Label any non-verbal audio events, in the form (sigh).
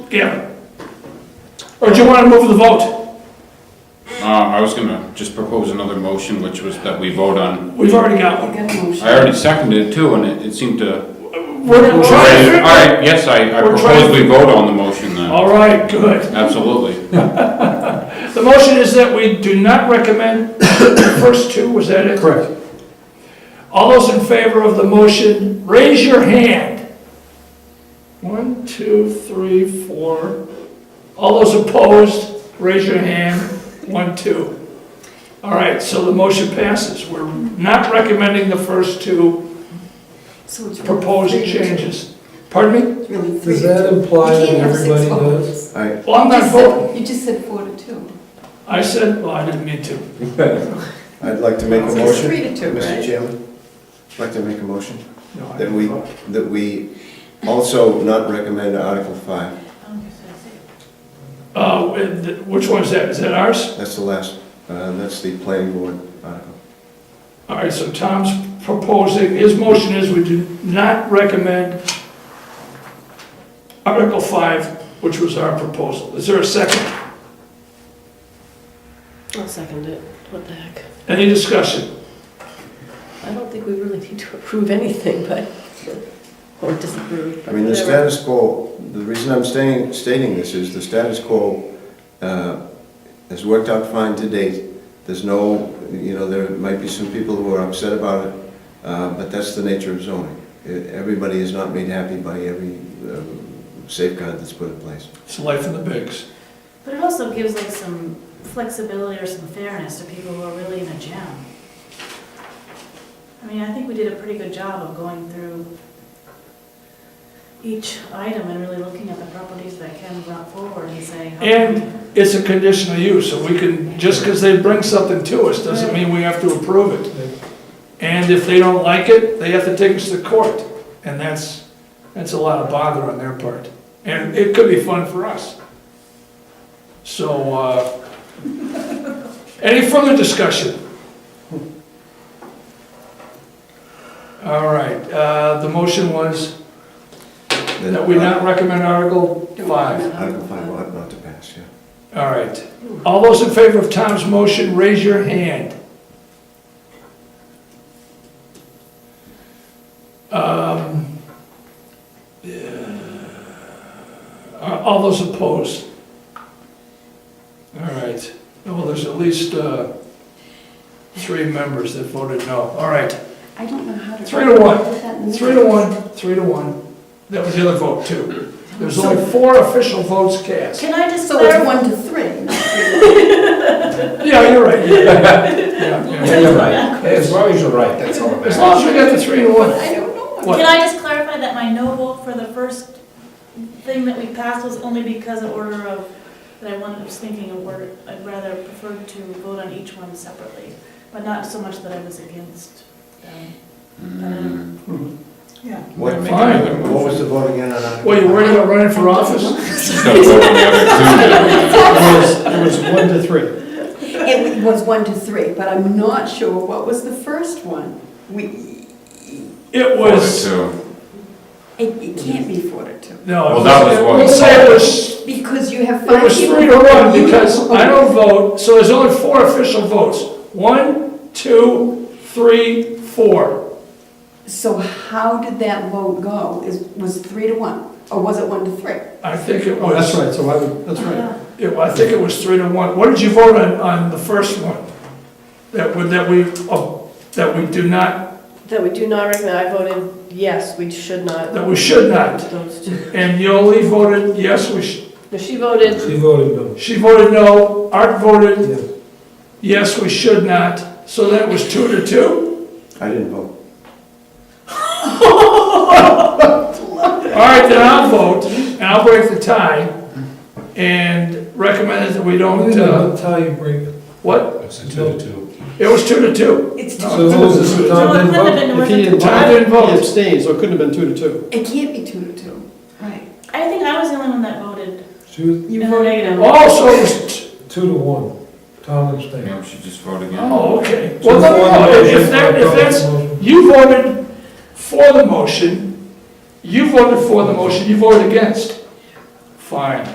Gavin? Or do you want to move the vote? Uh, I was gonna just propose another motion, which was that we vote on, We've already got one. I got a motion. I already seconded it too, and it, it seemed to. We're All trying. right, yes, I, I We're propose trying- we vote on the motion then, All right, good. absolutely. The motion is that we do not recommend the first two, was that it? Correct. All those in favor of the motion, raise your hand. One, two, three, four. All those opposed, raise your hand. One, two. All right, so the motion passes. We're not recommending the first two So it's really proposed three to two. changes. Pardon me? It's really three Does to that two. imply You that can't have six everybody votes. does? Well, I'm You not just said- voting. You just said four to two. I said, well, I didn't mean to. I'd like to make a It's motion. three to two, right? Mr. Chairman, I'd like to make a motion No, I that didn't we, vote. that we also not recommend Article 5. Uh, and th- which one is that? Is that ours? That's the last, uh, that's the planning board article. All right, so Tom's proposing, his motion is we do not recommend Article 5, which was our proposal. Is there a second? I'll second it. What the heck? Any discussion? I don't think we really need to approve anything, but, (laughs) or disapprove. I but mean, the whatever. status quo, the reason I'm staying, stating this is the status quo uh, has worked out fine to date. There's no, you know, there might be some people who are upset about it, uh, but that's the nature of zoning. E- Everybody is not made happy by every um, safeguard that's put in place. It's life in the bigs. But it also gives like some flexibility or some fairness to people who are really in a jam. I mean, I think we did a pretty good job of going through each item and really looking at the properties that Ken brought forward and saying. how can we- And it's a conditional use, so we can, just because they bring something to us, doesn't mean we have to approve it. And if they don't like it, they have to take us to court. And that's, that's a lot of bother on their part. And it could be fun for us. So, uh, any further discussion? All right, uh, the motion was that we not recommend Article 5. uh, Article 5 ought not to pass, yeah. All right. All those in favor of Tom's motion, raise your hand. Um, yeah. Are All those opposed? All right. Well, there's at least uh, three members that voted no. All right. I don't know how to. Three to one. What that means. Three to one, three to one. That was the other vote, too. There's only four official votes cast. Can I just So it's clarify? one to three. (laughs) not three to one. Yeah, you're right. Yeah, yeah, yeah. Yeah, you're right. As long as you're right, that's all that As long as we got the three to one. I don't know. What? Can I just clarify that my no vote for the first thing that we passed was only because of order of, that I wanted, I was thinking of order, I'd rather preferred to vote on each one separately, but not so much that I was against them. Mm, Yeah. What, Make another Fine. what was motion. the vote again on Article? Well, you're worried about running for office? She's gotta vote on the (laughs) other two. It was one to three. It was one to three, but I'm not sure what was the first one. We, It Vote was, it too. it, it can't be four to two. no, Well, that was it one. we'll say it was, Because you have it five was people. three to one, You because don't- I don't vote, so there's only four official votes. One, two, three, four. So how did that vote go? Is, was three to one, or was it one to three? I think it Oh, that's was, right, so I would, that's right. it- I think it was three to one. What did you vote on, on the first one? That would, that we, oh, that we do not, That we do not recommend, I voted yes, we should not. that we should not. Those two. And Yoli voted yes, we should. No, she voted, She voted no. She voted no, Art voted Yeah. Yes, we should not. So that was two to two? (laughs) I didn't vote. All right, then I'll vote, and I'll break the tie, and recommend that we don't, uh, That's how you break it. what? It's a two to two. It was two to two. It's, No, So it who was was this, two to Tom No, it didn't couldn't vote? have been If worth he it. didn't Tom vote, didn't he vote. abstained, so it couldn't have been two to two. it can't be two to two. Right. I think I was the only one that voted. She was You in the voted negative. Also, Oh, it was, t- two to one. Tom abstained. Yeah, we should just vote again. oh, okay. Well, no, no, no, if that, if that's, you voted for the motion, you voted for the motion, you voted against. fine.